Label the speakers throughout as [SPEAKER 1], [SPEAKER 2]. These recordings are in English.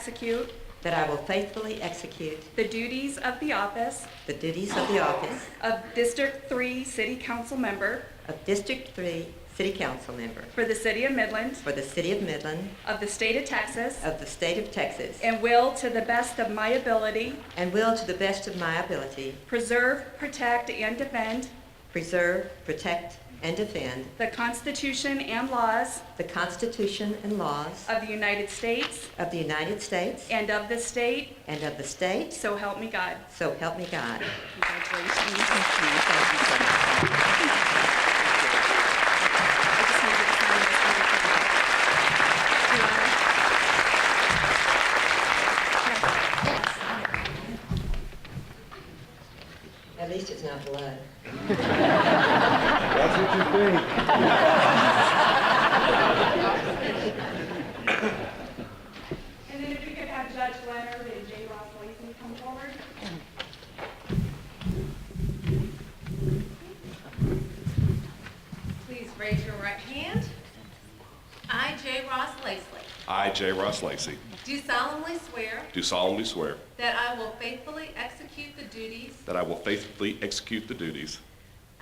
[SPEAKER 1] execute
[SPEAKER 2] that I will faithfully execute
[SPEAKER 1] the duties of the office
[SPEAKER 2] the duties of the office
[SPEAKER 1] of District 3 City Council Member
[SPEAKER 2] of District 3 City Council Member
[SPEAKER 1] for the City of Midland
[SPEAKER 2] for the City of Midland
[SPEAKER 1] of the State of Texas
[SPEAKER 2] of the State of Texas
[SPEAKER 1] and will, to the best of my ability,
[SPEAKER 2] and will, to the best of my ability,
[SPEAKER 1] preserve, protect, and defend
[SPEAKER 2] preserve, protect, and defend
[SPEAKER 1] the Constitution and laws
[SPEAKER 2] the Constitution and laws
[SPEAKER 1] of the United States
[SPEAKER 2] of the United States
[SPEAKER 1] and of the state,
[SPEAKER 2] and of the state,
[SPEAKER 1] so help me God.
[SPEAKER 2] so help me God.
[SPEAKER 1] I just need you to sign this under the table. Do you want
[SPEAKER 2] At least it's not blood.
[SPEAKER 3] That's what you think.
[SPEAKER 1] it? And then if you could have Judge Leonard and Jay Ross Lacy come forward.
[SPEAKER 4] Please raise your right hand. I, J. Ross Lasley,
[SPEAKER 5] I, J. Ross Lacey,
[SPEAKER 4] do solemnly swear
[SPEAKER 5] do solemnly swear
[SPEAKER 4] that I will faithfully execute the duties
[SPEAKER 5] that I will faithfully execute the duties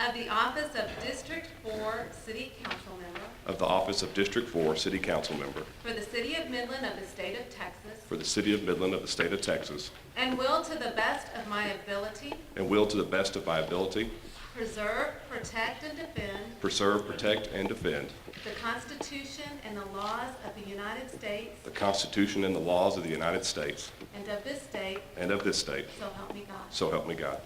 [SPEAKER 4] of the office of District 4 City Council Member
[SPEAKER 5] of the office of District 4 City Council Member
[SPEAKER 4] for the City of Midland of the State of Texas
[SPEAKER 5] for the City of Midland of the State of Texas,
[SPEAKER 4] and will, to the best of my ability,
[SPEAKER 5] and will to the best of my ability
[SPEAKER 4] preserve, protect, and defend
[SPEAKER 5] preserve, protect, and defend
[SPEAKER 4] the Constitution and the laws of the United States
[SPEAKER 5] the Constitution and the laws of the United States
[SPEAKER 4] and of this state,
[SPEAKER 5] and of this state.
[SPEAKER 4] so help me God.
[SPEAKER 5] So help me God.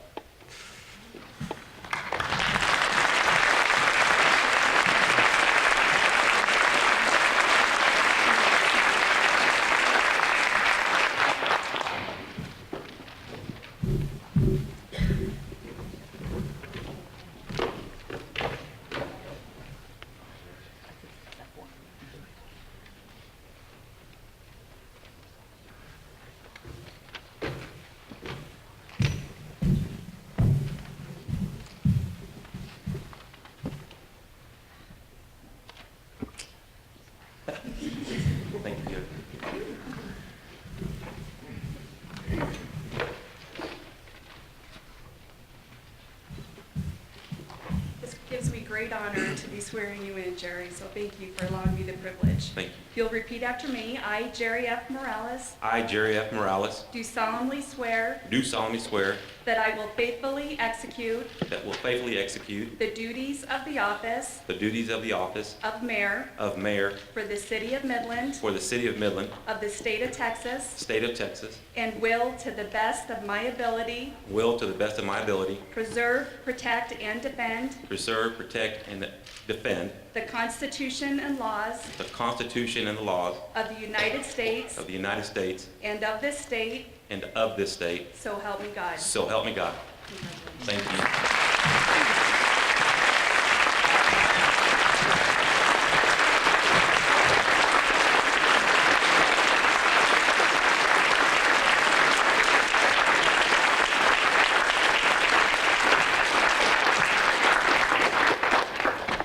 [SPEAKER 1] This gives me great honor to be swearing you in, Jerry, so thank you for allowing me the privilege.
[SPEAKER 6] Thank you.
[SPEAKER 1] You'll repeat after me. I, Jerry F. Morales,
[SPEAKER 6] I, Jerry F. Morales,
[SPEAKER 1] do solemnly swear
[SPEAKER 6] do solemnly swear
[SPEAKER 1] that I will faithfully execute
[SPEAKER 6] that will faithfully execute
[SPEAKER 1] the duties of the office
[SPEAKER 6] the duties of the office
[SPEAKER 1] of mayor
[SPEAKER 6] of mayor
[SPEAKER 1] for the City of Midland
[SPEAKER 6] for the city of Midland,
[SPEAKER 1] of the State of Texas
[SPEAKER 6] state of Texas,
[SPEAKER 1] and will, to the best of my ability,
[SPEAKER 6] will to the best of my ability
[SPEAKER 1] preserve, protect, and defend
[SPEAKER 6] preserve, protect, and defend
[SPEAKER 1] the Constitution and laws
[SPEAKER 6] the Constitution and the laws
[SPEAKER 1] of the United States
[SPEAKER 6] of the United States
[SPEAKER 1] and of this state,
[SPEAKER 6] and of this state.
[SPEAKER 1] so help me God.
[SPEAKER 6] So help me God. Thank you.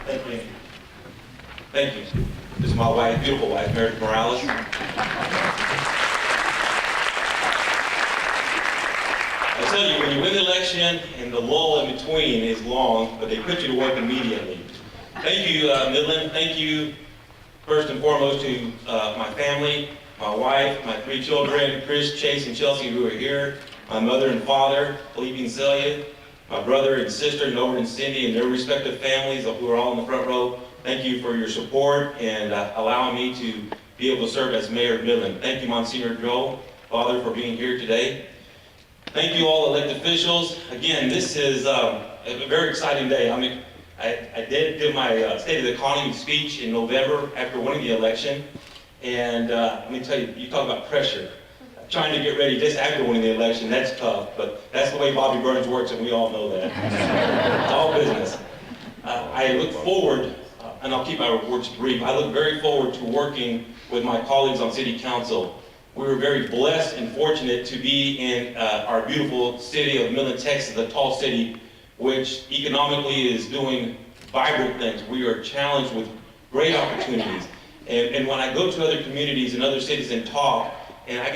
[SPEAKER 7] Thank you. Thank you. This is my wife, beautiful wife, Meredith Morales. I tell you, when you win the election and the lull in between is long, but they put you to work immediately. Thank you, uh, Midland. Thank you, first and foremost, to uh, my family, my wife, my three children, Chris, Chase, and Chelsea, who are here, my mother and father, Felipe and Celia, my brother and sister, Norbert and Cindy, and their respective families who are all in the front row. Thank you for your support and uh, allowing me to be able to serve as mayor of Midland. Thank you, Monsignor Joel, Father, for being here today. Thank you all elected officials. Again, this is um, a very exciting day. I mean, I, I did give my uh, State of the Economy speech in November after winning the election. And uh, let me tell you, you talk about pressure. Trying to get ready just after winning the election, that's tough, but that's the way Bobby Burns works, and we all know that. It's all business. Uh, I look forward, uh, and I'll keep my reports brief, I look very forward to working with my colleagues on city council. We were very blessed and fortunate to be in uh, our beautiful city of Midland, Texas, a tall city, which economically is doing vibrant things. We are challenged with great opportunities. And and when I go to other communities and other cities and talk, and I